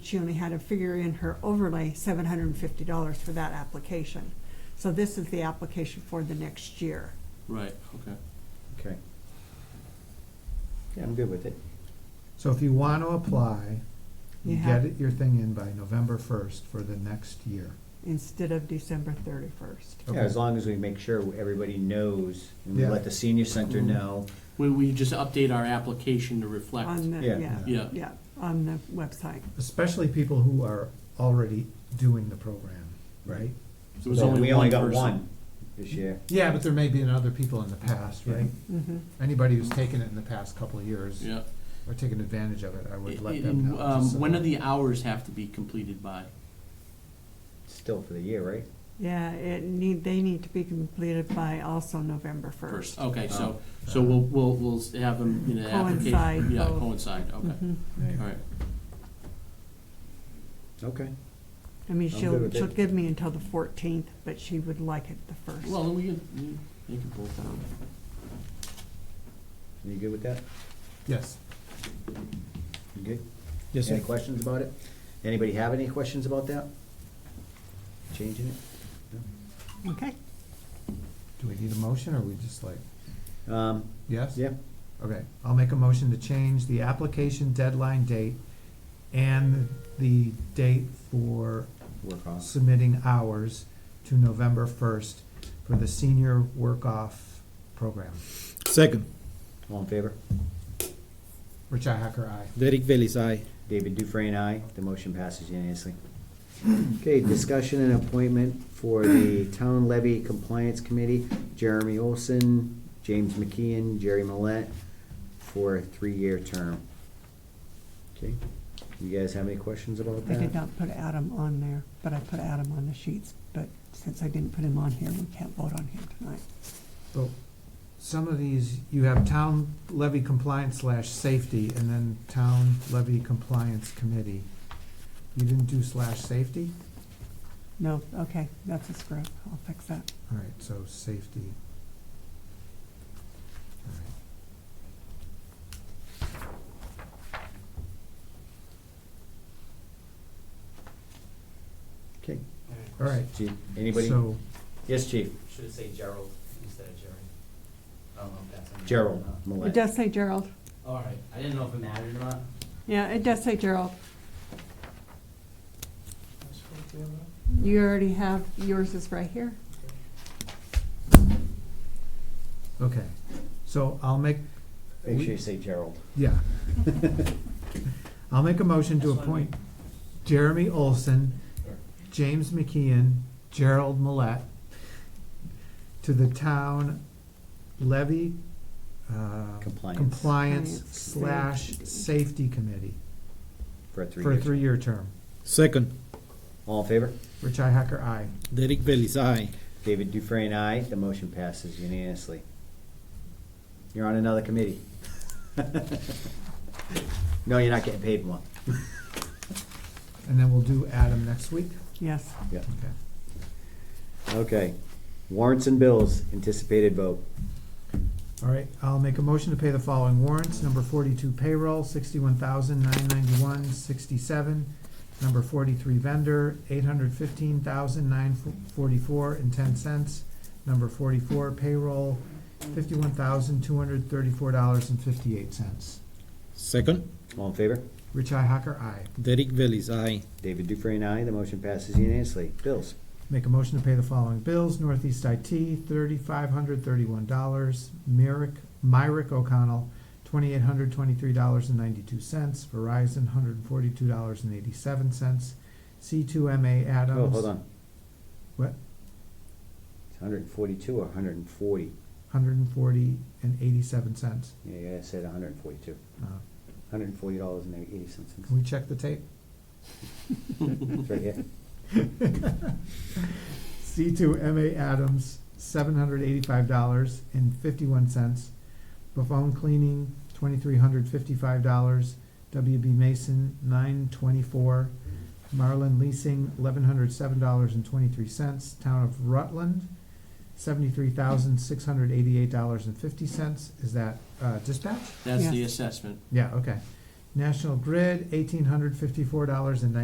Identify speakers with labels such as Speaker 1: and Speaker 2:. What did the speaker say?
Speaker 1: she only had to figure in her overlay seven hundred and fifty dollars for that application. So this is the application for the next year.
Speaker 2: Right, okay.
Speaker 3: Okay. Yeah, I'm good with it.
Speaker 4: So if you want to apply,
Speaker 1: You
Speaker 4: you
Speaker 1: have-
Speaker 4: get it- your thing in by November first for the next year.
Speaker 1: instead of December thirty-first.
Speaker 4: Okay.
Speaker 3: Yeah, as long as we make sure everybody knows, and we
Speaker 4: Yeah.
Speaker 3: let the senior center
Speaker 2: Mhm.
Speaker 3: know.
Speaker 2: We, we just update our application to reflect.
Speaker 1: On the,
Speaker 3: Yeah.
Speaker 1: yeah,
Speaker 2: Yeah.
Speaker 1: yeah, on the website.
Speaker 4: Especially people who are already doing the program, right?
Speaker 2: There was
Speaker 3: So
Speaker 2: only
Speaker 3: We
Speaker 2: one
Speaker 3: only got
Speaker 2: person.
Speaker 3: one this year.
Speaker 4: Yeah, but there may be other people in the past, right?
Speaker 1: Mm-hmm.
Speaker 4: Anybody who's taken it in the past couple of years
Speaker 2: Yeah.
Speaker 4: or taken advantage of it, I would let them
Speaker 2: And,
Speaker 4: know. just
Speaker 2: um,
Speaker 4: so
Speaker 2: when do
Speaker 4: that-
Speaker 2: the hours have to be completed by?
Speaker 3: Still for the year, right?
Speaker 1: Yeah, it need, they need to be completed by also November first.
Speaker 2: Okay, so,
Speaker 4: Oh.
Speaker 2: so we'll, we'll, we'll have them in an application.
Speaker 1: Coincide
Speaker 2: Yeah,
Speaker 1: both.
Speaker 2: coincide, okay,
Speaker 1: Mhm.
Speaker 4: Yeah.
Speaker 2: all right.
Speaker 3: Okay.
Speaker 1: I mean,
Speaker 3: I'm good
Speaker 1: she'll,
Speaker 3: with
Speaker 1: she'll
Speaker 3: it.
Speaker 1: give me until the fourteenth, but she would like it the first.
Speaker 2: Well, then we can, you- they can both down.
Speaker 3: You good with that?
Speaker 4: Yes.
Speaker 3: You good?
Speaker 4: Yes,
Speaker 3: Any questions about it? Anybody have any questions about that? Changing it?
Speaker 1: Okay.
Speaker 4: Do we need a motion or we just like,
Speaker 3: Um,
Speaker 4: yes?
Speaker 3: yeah,
Speaker 4: Okay, I'll make a motion to change the application deadline date and the date for
Speaker 3: work off.
Speaker 4: submitting hours to November first for the senior work-off program.
Speaker 5: Second,
Speaker 3: All in favor?
Speaker 4: Richi Hacker, aye.
Speaker 5: Derek Bailey's aye.
Speaker 3: David Dufresne, aye. The motion passes unanimously. Okay, discussion and appointment for the Town Levy Compliance Committee, Jeremy Olson, James McKeon, Jerry Millet, for a three-year term. Okay, you guys have any questions about
Speaker 1: I
Speaker 3: that?
Speaker 1: did not put Adam on there, but I put Adam on the sheets, but since I didn't put him on here, we can't vote on him tonight.
Speaker 4: But some of these, you have town levy compliance slash safety and then town levy compliance committee. You didn't do slash safety?
Speaker 1: No, okay, that's a screw up, I'll fix that.
Speaker 4: All right, so safety. All right.
Speaker 3: Okay,
Speaker 4: All right,
Speaker 3: chief, anybody?
Speaker 4: so,
Speaker 3: Yes, chief,
Speaker 6: Should it say Gerald instead of Jerry? I don't know if that's.
Speaker 3: Gerald
Speaker 1: It
Speaker 3: Millet.
Speaker 1: does say Gerald.
Speaker 6: All right, I didn't know if it mattered or not.
Speaker 1: Yeah, it does say Gerald. You already have, yours is right here.
Speaker 4: okay, so I'll make,
Speaker 3: Make sure you say Gerald.
Speaker 4: yeah. I'll make a motion to
Speaker 6: That's fine.
Speaker 4: appoint Jeremy Olson, James McKeon, Gerald Millet to the town levy, uh,
Speaker 3: Compliance.
Speaker 4: compliance
Speaker 1: Compliance.
Speaker 4: slash safety committee
Speaker 3: For a three-year.
Speaker 4: for a
Speaker 3: term.
Speaker 4: three-year term.
Speaker 5: Second,
Speaker 3: All in favor?
Speaker 4: Rich Hacker, aye.
Speaker 5: Derek Bailey's aye.
Speaker 3: David Dufresne, aye. The motion passes unanimously. You're on another committee. No, you're not getting paid more.
Speaker 4: And then we'll do Adam next week.
Speaker 1: Yes.
Speaker 3: Yeah.
Speaker 4: Okay.
Speaker 3: Okay. Warrants and bills, anticipated vote.
Speaker 4: All right, I'll make a motion to pay the following warrants. Number forty-two payroll, sixty-one thousand nine ninety-one sixty-seven. Number forty-three vendor, eight hundred fifteen thousand nine forty-four and ten cents. Number forty-four payroll, fifty-one thousand two hundred thirty-four dollars and fifty-eight cents.
Speaker 5: Second,
Speaker 3: All in favor?
Speaker 4: Rich I. Hacker, aye.
Speaker 5: Derek Bailey's aye.
Speaker 3: David Dufresne, aye. The motion passes unanimously. Bills.
Speaker 4: Make a motion to pay the following bills. Northeast IT, thirty-five hundred thirty-one dollars. Myrick, Myrick O'Connell, twenty-eight hundred twenty-three dollars and ninety-two cents. Verizon, hundred and forty-two dollars and eighty-seven cents. C two MA Adams.
Speaker 3: Oh, hold on.
Speaker 4: What?
Speaker 3: Hundred and forty-two or hundred and forty?
Speaker 4: Hundred and forty and eighty-seven cents.
Speaker 3: Yeah, I said hundred and forty-two.
Speaker 4: Uh,
Speaker 3: Hundred and forty dollars and eighty cents.
Speaker 4: Can we check the tape?
Speaker 3: It's right here.
Speaker 4: C two MA Adams, seven hundred eighty-five dollars and fifty-one cents. Buffon Cleaning, twenty-three hundred fifty-five dollars. WB Mason, nine twenty-four. Marlin Leasing, eleven hundred seven dollars and twenty-three cents. Town of Rutland, seventy-three thousand six hundred eighty-eight dollars and fifty cents. Is that, uh, dispatch?
Speaker 2: That's the
Speaker 1: Yes.
Speaker 2: assessment.
Speaker 4: Yeah, okay. National Grid, eighteen hundred fifty-four dollars and